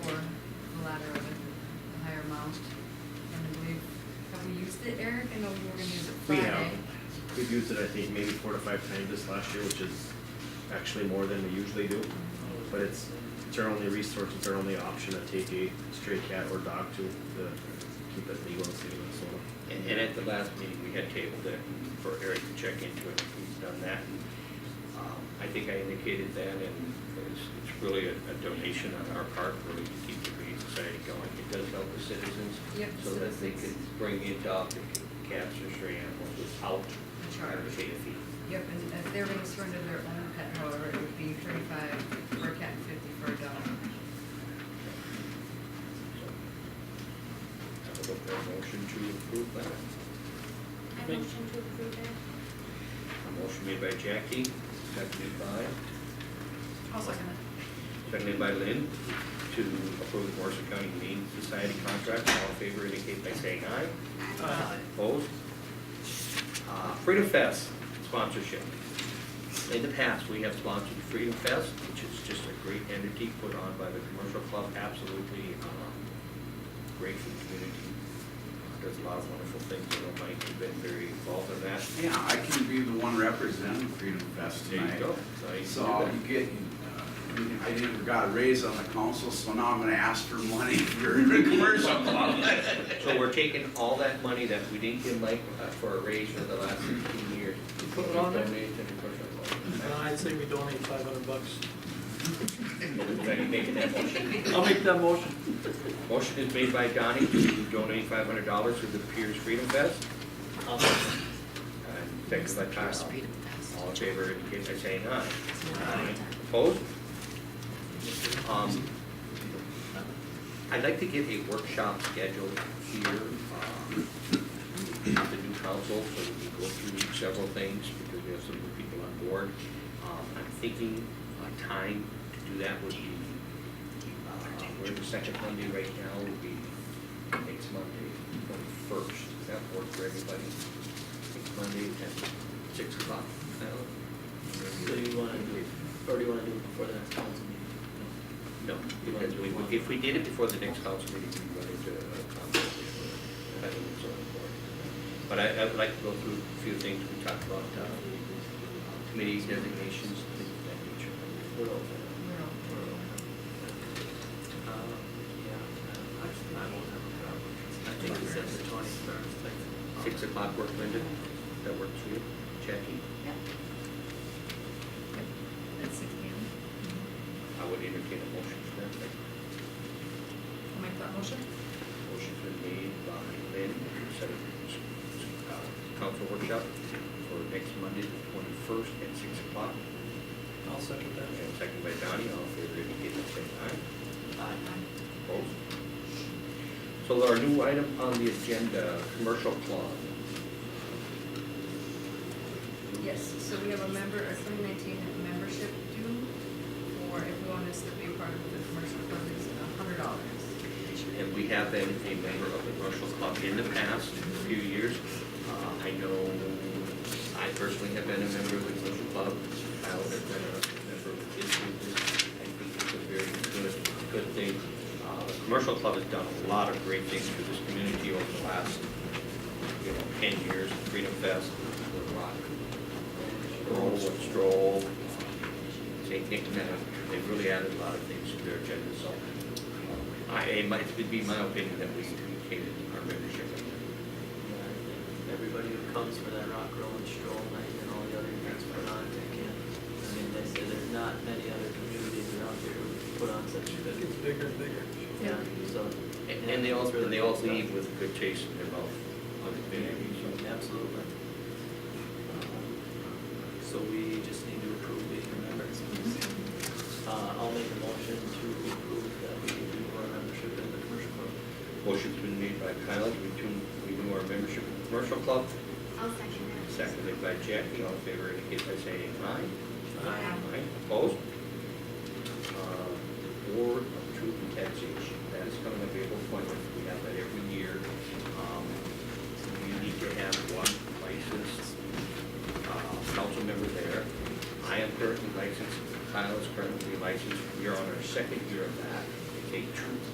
amount. And I believe, have we used it, Eric? I know we were gonna use it We Friday. have, we've used it, I think, maybe four to five times this last year, which is actually more than we usually do. But it's, it's our only resource, it's our only option to take a stray cat or dog to, to keep it legal in the state of Minnesota. And, and at the last meeting, we had tabled it for Eric to check into it, he's done that. Um, I think I indicated that, and it's, it's really a a donation on our part, really, to keep the breeding society going. It does help the citizens. Yep, So that they citizens. can bring in dogs, and cats, or stray animals without Charge. having to pay a fee. Yep, and if they're gonna surrender their own pet, however, it would be thirty-five for a cat and fifty for a dog. So, I would look for a motion to approve that. I Thank- motion to approve it. A motion made by Jackie, seconded by I'll second Seconded by Lynn to approve the Morrison County Humane Society contract. All in favor indicate by saying aye. Uh, Opposed? Uh, Freedom Fest sponsorship. In the past, we have sponsored Freedom Fest, which is just a great entity put on by the commercial club. Absolutely um, great for the community. Uh, Does a lot of wonderful things. I know Mike has been very involved in that. Yeah, I can be the one representing Freedom Fest There you tonight. go. Now you So can do I'll that. be getting, uh, I didn't, got a raise on the council, so now I'm gonna ask for money for a commercial club. So we're taking all that money that we didn't give Mike uh, for a raise for the last fifteen years. Put it on there? Donate to the commercial no, Uh, I'd say we donate five hundred bucks. club. Anybody making that motion? I'll make that motion. Motion is made by Donnie to donate five hundred dollars to the Pierce Freedom Fest. And seconded by Kyle. All in favor indicate by saying aye. Aye. Opposed? Um, I'd like to get a workshop scheduled here, um, with the new council, so we can go through several things, because we have some new people on board. Um, I'm thinking a time to do that would be, uh, we're the second Monday right now, would be next Monday, twenty-first. Does that work for everybody? Next Monday at six o'clock. So you wanna do it, or do you wanna do it before the next council meeting? No, because we, would- if we did it before the next council meeting, we'd run into a conflict. with the planning and zoning board. But I, I would like to go through a few things we talked about, uh, committee designations, things of that nature. What else? Uh, yeah, uh, actually, I won't have a problem. I think it's at the twenty-first, like. Six o'clock work, Linda? That works for you? Jackie? Yep. Yep, At six P M. I would entertain a motion for that. Like, I'll make that motion. Motion's been made by Lynn, to set a, uh, council workshop for next Monday, the twenty-first, at six o'clock. I'll second And second by Donnie, all in favor indicate by saying aye. Aye. Opposed? So our new item on the agenda, commercial club. Yes, so we have a member, a twenty nineteen membership due, or if you want us to be a part of the commercial club, it's a hundred dollars. And we have been a member of the commercial club in the past few years. Uh, I know, I personally have been a member of the commercial club. Kyle has been a member of his group. I think it's a very good, good thing. Uh, The commercial club has done a lot of great things for this community over the last, you know, ten years. Freedom Fest, Little Rock, Stroll, Stroll, they think that they really added a lot of things to their agenda, so uh, I, it might, it'd be my opinion that we communicated our membership. Yeah, I think Everybody who comes for that rock, roll and stroll night and all the other events put on, they can. I mean, they say there's not many other communities around here who put on such That good, gets bigger and bigger. yeah, so. And, and they all, it's really and they all good stuff. leave with a good taste in their mouth on the community, so. Absolutely. Um, So we just need to approve being a member. Uh, I'll make a motion to approve that we renew our membership in the commercial club. Motion's been made by Kyle to renew, renew our membership in the commercial club, I'll second that. seconded by Jackie, all in favor indicate by saying aye. Aye. Aye, opposed? Uh, Board of Truth and Taxation, that is coming available appointment, we have that every year. Um, You need to have one licensed uh, council member there. I am currently licensed, Kyle is currently licensed, we are on our second year of that. It's a truth